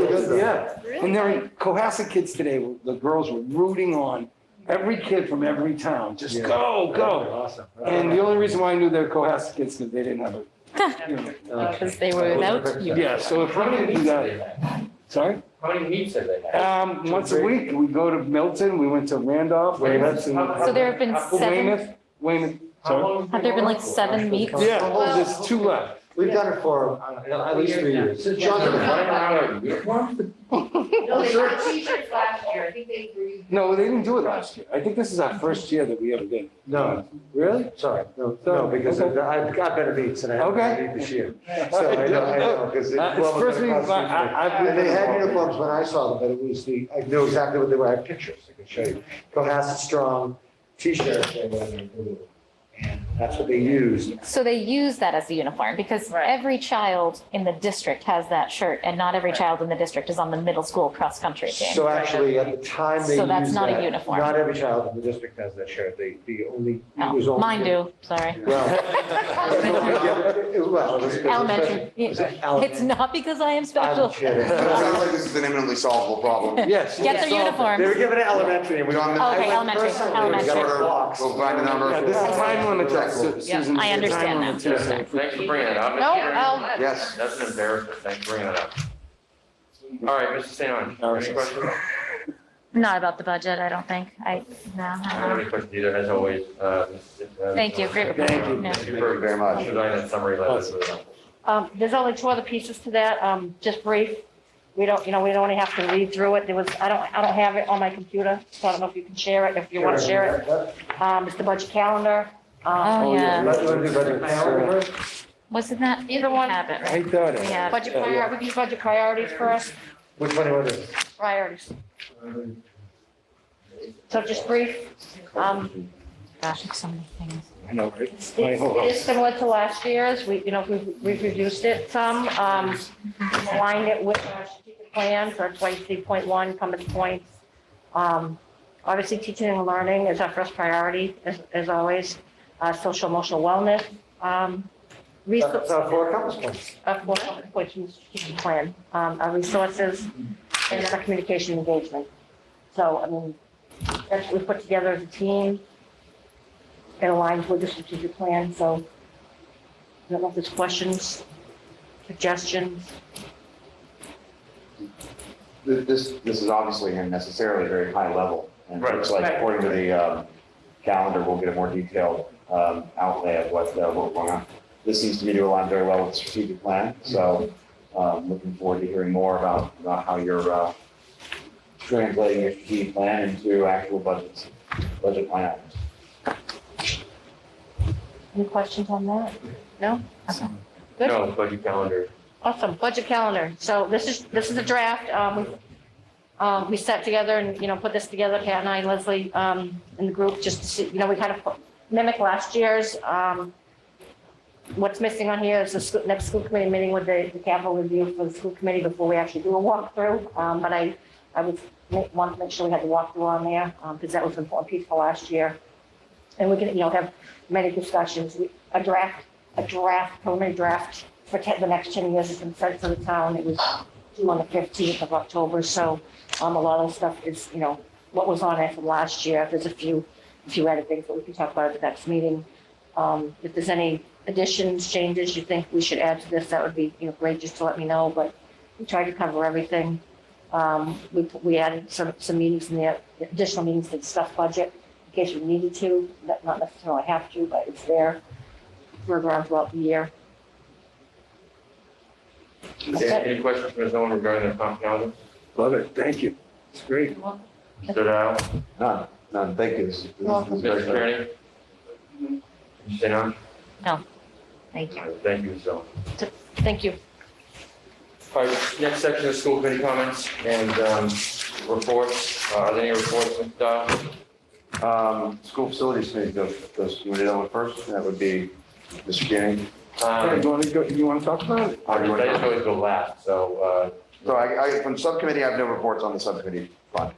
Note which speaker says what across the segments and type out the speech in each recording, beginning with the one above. Speaker 1: good though.
Speaker 2: Yeah, and there were Cohasset kids today, the girls were rooting on every kid from every town, just
Speaker 1: Yeah.
Speaker 2: go, go.
Speaker 1: Awesome.
Speaker 2: And the only reason why I knew they were Cohasset kids, because they didn't have a, you know,
Speaker 3: Uh, Because they were without you.
Speaker 2: yeah, so if we
Speaker 4: How many
Speaker 2: could do
Speaker 4: meets have they
Speaker 2: that,
Speaker 4: had?
Speaker 2: sorry?
Speaker 4: How many meets have they had?
Speaker 2: Um, once a week, we go to Milton, we went to Randolph, we went
Speaker 4: How-
Speaker 2: to
Speaker 3: So there have been
Speaker 4: how-
Speaker 3: seven,
Speaker 2: Weymouth, Weymouth,
Speaker 4: How
Speaker 2: sorry.
Speaker 4: long
Speaker 3: have there been like
Speaker 4: going for?
Speaker 3: seven meets?
Speaker 2: Yeah, there's two left.
Speaker 1: We've done it for uh, at least three years. Since
Speaker 4: John,
Speaker 1: John's
Speaker 4: the
Speaker 1: been
Speaker 4: final
Speaker 1: around.
Speaker 4: hour of your one?
Speaker 5: No, they got t-shirts last year, I think they agreed.
Speaker 2: No, they didn't do it last year. I think this is our first year that we ever did.
Speaker 1: No,
Speaker 2: Really?
Speaker 1: sorry, no, no, because I've I've got better beats and I have
Speaker 2: Okay.
Speaker 1: better beat this year. So I know, I know, because the
Speaker 2: Uh,
Speaker 1: uniform
Speaker 2: it's
Speaker 1: was
Speaker 2: first
Speaker 1: gonna
Speaker 2: week,
Speaker 1: cost me
Speaker 2: but
Speaker 1: money.
Speaker 2: I, I've been.
Speaker 1: And they had uniforms when I saw them, but it was the, I knew exactly what they were, I have pictures, I can show you. Cohasset Strong T-shirts they were, in blue. and that's what they used.
Speaker 3: So they use that as a uniform because
Speaker 6: Right.
Speaker 3: every child in the district has that shirt and not every
Speaker 6: Right.
Speaker 3: child in the district is on the middle school cross-country team.
Speaker 1: So actually, at the time they used
Speaker 3: So that's not a
Speaker 1: that,
Speaker 3: uniform.
Speaker 1: Not every child in the district has that shirt, they, the only, it
Speaker 3: No,
Speaker 1: was only.
Speaker 3: Oh, Mine do, sorry.
Speaker 1: Well. it- Well, it was. it was-
Speaker 3: Elementary.
Speaker 1: it was
Speaker 3: It's
Speaker 1: elementary.
Speaker 3: not because I am
Speaker 1: I'm
Speaker 3: special.
Speaker 1: kidding.
Speaker 7: It sounds like this is an imminently solvable problem.
Speaker 2: Yes.
Speaker 3: Get their
Speaker 2: yes, all of them.
Speaker 1: They were
Speaker 3: uniforms.
Speaker 1: given it elementary and we.
Speaker 7: We on the-
Speaker 1: I
Speaker 3: Okay,
Speaker 1: went
Speaker 3: elementary,
Speaker 1: personally,
Speaker 3: elementary.
Speaker 1: We got our blocks.
Speaker 7: We'll find a number.
Speaker 2: Yeah, this is time limit, Su-
Speaker 7: Exactly.
Speaker 2: Susan. this is
Speaker 3: I understand
Speaker 2: time
Speaker 3: that.
Speaker 2: limit,
Speaker 4: Yeah,
Speaker 2: Susan.
Speaker 4: Thanks for bringing it up.
Speaker 6: No,
Speaker 4: It's-
Speaker 6: I'll-
Speaker 7: Yes.
Speaker 4: That's an embarrassment. Thanks for bringing it up. All right, Mr. St. Ange, any questions?
Speaker 3: Not about the budget, I don't think. I, no.
Speaker 4: I
Speaker 3: I
Speaker 4: don't have
Speaker 3: don't.
Speaker 4: any questions either, as always. uh, Ms. uh,
Speaker 3: Thank you. Great report.
Speaker 2: Thank you.
Speaker 3: No.
Speaker 4: Thank you for very much. Providing that summary letter. Really helpful.
Speaker 6: Um, there's only two other pieces to that, um, just brief. We don't, you know, we don't have to read through it. There was, I don't, I don't have it on my computer, so I don't know if you can share it, if you want to share it. Um, it's the budget calendar. Um,
Speaker 3: Oh, yeah.
Speaker 1: Let- let me do budget calendar.
Speaker 3: Wasn't that?
Speaker 6: Either one.
Speaker 3: Have it, right?
Speaker 2: I thought it.
Speaker 3: Yeah.
Speaker 6: budget
Speaker 2: Yeah, yeah.
Speaker 6: prior, we can do budget priorities first,
Speaker 1: Which one do you want to do?
Speaker 6: priorities. So just brief. Um,
Speaker 3: Gosh, there's so many things.
Speaker 2: I know, right?
Speaker 6: it's-
Speaker 2: My whole
Speaker 6: it is
Speaker 2: house.
Speaker 6: similar to last year's. We, you know, we've, we've reduced it some, um, aligned it with our strategic plan for twenty-three point one, compass points. Um, obviously, teaching and learning is our first priority, as, as always, uh, social emotional wellness, um,
Speaker 1: That's
Speaker 6: resource,
Speaker 1: our four compass points.
Speaker 6: of course, which is strategic plan, um, our resources, and then our communication engagement. So, I mean, that's what we put together as a team. It aligns with the strategic plan, so I don't know if there's questions, suggestions.
Speaker 7: Th- This, this is obviously unnecessarily very high level. And it looks
Speaker 4: Right.
Speaker 7: like according to the um, calendar, we'll get a more detailed um, outlay of what, uh, what we're going on. This seems to me to align very well with the strategic plan. So um, looking forward to hearing more about, about how you're uh, translating your strategic plan into actual budgets, budget line items.
Speaker 6: Any questions on that? Good.
Speaker 4: No, budget calendar.
Speaker 6: Awesome, budget calendar. So this is, this is a draft. Um, we- um, we sat together and, you know, put this together, Pat and I, and Leslie, um, in the group, just to see, you know, we kind of mimic last year's. Um, what's missing on here is the scho- next school committee meeting with the the capital review for the school committee before we actually do a walkthrough. Um, but I, I would make, want to make sure we had the walkthrough on there, um, because that was an important piece for last year. And we can, you know, have many discussions. We- A draft, a draft, preliminary draft for te- the next ten years has been sent to the town. It was due on the fifteenth of October, so, um, a lot of stuff is, you know, what was on it from last year. There's a few, a few added things that we can talk about at the next meeting. Um, if there's any additions, changes you think we should add to this, that would be, you know, great, just to let me know, but we tried to cover everything. Um, we, we added some, some meetings in there, additional meetings to discuss budget, in case we needed to, not not necessarily have to, but it's there further on throughout the year.
Speaker 4: Any any questions from anyone regarding the comp calendar?
Speaker 2: Love it. Thank you. It's great.
Speaker 4: Stood out?
Speaker 7: None, none. Thank you. This is- this
Speaker 4: Mr.
Speaker 7: is very-
Speaker 4: Kearney? Mr. St. Ange?
Speaker 3: Thank you.
Speaker 4: Thank you, so.
Speaker 6: Thank you.
Speaker 4: All right, next section is school committee comments and um, reports. Uh, Are there any reports, Mr. Dodd?
Speaker 7: Um, School facilities committee goes, goes, you want to do that one first? That would be Mr. Keating.
Speaker 2: Hey,
Speaker 4: Um,
Speaker 2: You want to go, you want to talk about it?
Speaker 7: How do you
Speaker 4: I
Speaker 7: want
Speaker 4: just
Speaker 7: to go?
Speaker 4: always go last, so, uh,
Speaker 7: So I, I, from subcommittee, I have no reports on the subcommittee. Fine.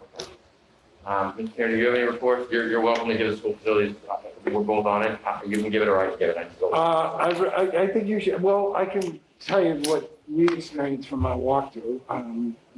Speaker 4: uh, um, Mr. Kearney, do you have any reports? You're, you're welcome to give the school facilities, uh, we're both on it. Uh, You can give it or I can give it. I can go.
Speaker 2: Uh, I, I- I think you should, well, I can tell you what we experienced from our walkthrough, um,